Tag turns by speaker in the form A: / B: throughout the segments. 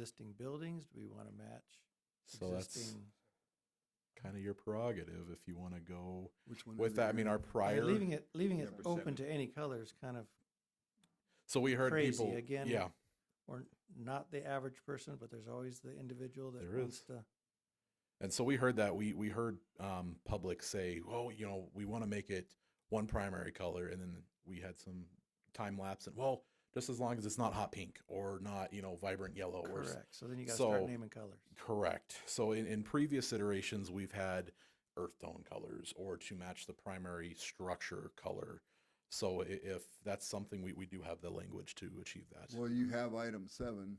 A: existing buildings? Do we want to match
B: So that's
A: existing?
B: kind of your prerogative if you want to go
C: Which one?
B: with that. I mean, our
A: I mean,
B: prior.
A: Leaving it, leaving it
C: Yeah,
A: open to any color is kind of,
B: so we heard
A: crazy
B: people.
A: again.
B: Yeah,
A: or not the average person, but there's always the individual that
B: There
A: wants
B: is.
A: to.
B: and so we heard that. We we heard um, public say, "Well, you know, we want to make it one primary color," and then we had some time lapse and well, just as long as it's not hot pink or not, you know, vibrant yellow or s-
A: Correct. So then you got to start
B: so-
A: naming colors.
B: Correct. So in, in previous iterations, we've had earth tone colors or to match the primary structure color. So i- if that's something we, we do have the language to achieve that.
C: Well, you have item seven,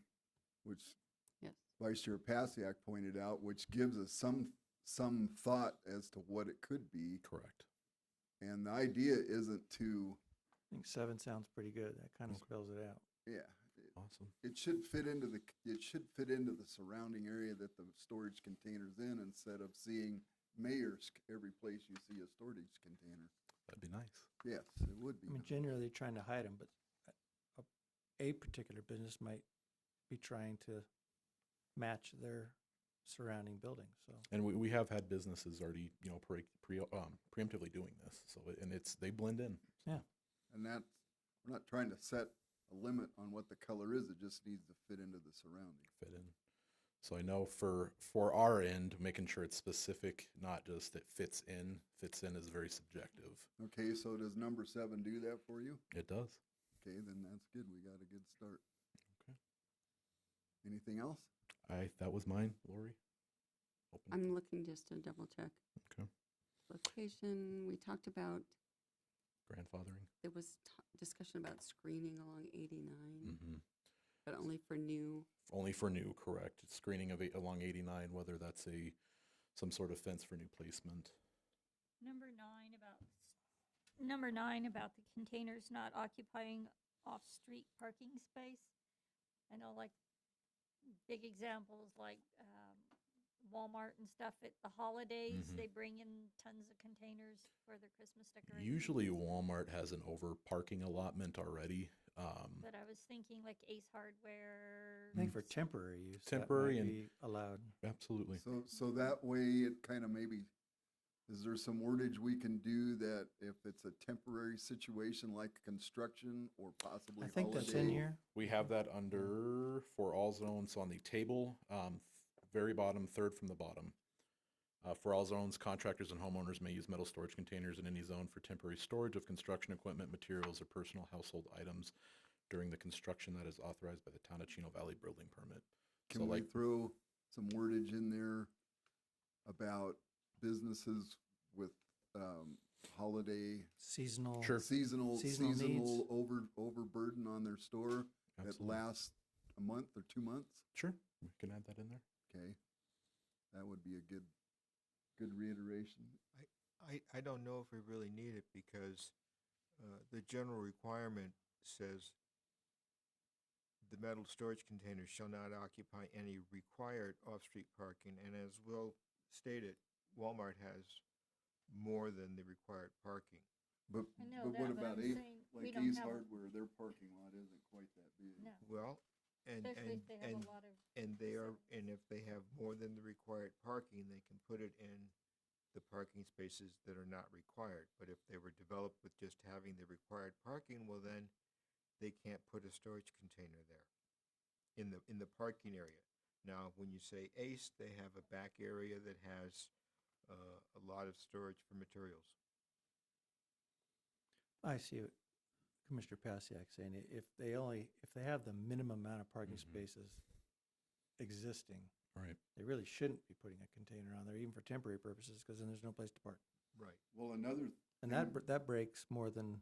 C: which
D: Yes.
C: Vice Chair Pasiak pointed out, which gives us some, some thought as to what it could be.
B: Correct.
C: And the idea isn't to,
A: I think seven sounds pretty good. That kind of
B: Okay.
A: spells it out.
C: yeah,
B: Awesome.
C: it should fit into the, it should fit into the surrounding area that the storage container's in instead of seeing mayor's every place you see a storage container.
B: That'd be nice.
C: Yes, it would be.
A: I mean, generally trying to hide them, but a, a particular business might be trying to match their surrounding building. So
B: And we, we have had businesses already, you know, pre, pre, um, preemptively doing this. So, it- and it's, they blend in.
C: And that's, we're not trying to set a limit on what the color is, it just needs to fit into the surrounding.
B: fit in. So I know for for our end, making sure it's specific, not just it fits in. Fits in is very subjective.
C: Okay, so does number seven do that for you?
B: It does.
C: Okay, then that's good, we got a good start.
B: Okay.
C: Anything else?
B: I that was mine, Lori. Open.
D: I'm looking just to double check.
B: Okay.
D: Location, we talked about,
B: grandfathering.
D: there was t- discussion about screening along 89,
B: Mm-hmm.
D: but only for new,
B: Only for new, correct? Screening of eight, along 89, whether that's a some sort of fence for new placement.
E: Number nine about, number nine about the containers not occupying off-street parking space. I know like big examples like um, Walmart and stuff at the holidays,
B: Mhm.
E: they bring in tons of containers for their Christmas decorations.
B: Usually, Walmart has an over parking allotment already. Um,
E: But I was thinking like Ace Hardware.
A: I think for
E: s-
A: temporary use, that might
B: Hmm. Temporary and-
A: be allowed.
B: absolutely.
C: So, so that way it kind of maybe, is there some wordage we can do that if it's a temporary situation like construction or possibly
A: I
C: holiday?
A: think that's in here.
B: We have that under for all zones on the table, um, very bottom, third from the bottom. Uh, for all zones, contractors and homeowners may use metal storage containers in any zone for temporary storage of construction equipment, materials, or personal household items during the construction that is authorized by the Town of Chino Valley Building Permit. So
C: Can we
B: like,
C: throw some wordage in there about businesses with, um, holiday,
A: Seasonal.
B: Sure.
C: seasonal,
A: Seasonal needs.
C: seasonal over, overburden on their store that
B: absolutely.
C: lasts a month or two months?
B: sure, we can add that in there.
C: Okay, that would be a good, good reiteration.
F: I, I don't know if we really need it because uh, the general requirement says the metal storage containers shall not occupy any required off-street parking, and as Will stated, Walmart has more than the required parking.
C: But,
E: I know
C: but
E: that,
C: what
E: but
C: about
E: I'm
C: Ace,
E: saying we
C: like
E: don't
C: Ace
E: have-
C: Hardware, their parking lot isn't quite that big.
E: No,
F: Well, and,
E: especially
F: and,
E: if they have a
F: and,
E: lot of,
F: and they are, and if they have more than the required parking, they can put it in the parking spaces that are not required. But if they were developed with just having the required parking, well then, they can't put a storage container there in the, in the parking area. Now, when you say ACE, they have a back area that has, uh, a lot of storage for materials.
A: I see what Commissioner Pasiak saying. I- If they only, if they have the minimum amount of parking
B: Mhm.
A: spaces existing,
B: All right.
A: they really shouldn't be putting a container on there, even for temporary purposes, because then there's no place to park.
F: Right.
C: Well, another,
A: And
B: Mm-hmm.
A: that, br- that breaks more than,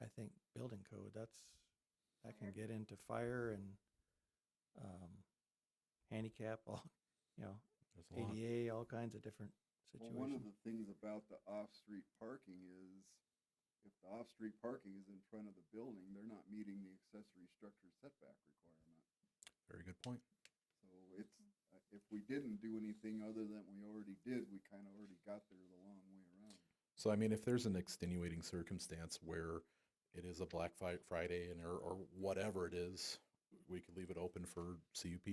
A: I think, building code. That's, that can
E: Fire.
A: get into fire and, um, handicap, all, you know,
B: There's a lot.
A: ADA, all kinds of different
C: well, one of
A: situations.
C: the things about the off-street parking is, if the off-street parking is in front of the building, they're not meeting the accessory structure setback requirement.
B: Very good point.
C: So it's,
E: Mm.
C: uh, if we didn't do anything other than we already did, we kind of already got there the long way around.
B: So I mean, if there's an extenuating circumstance where it is a Black Fri- Friday and or, or whatever it is, we could leave it open for CUP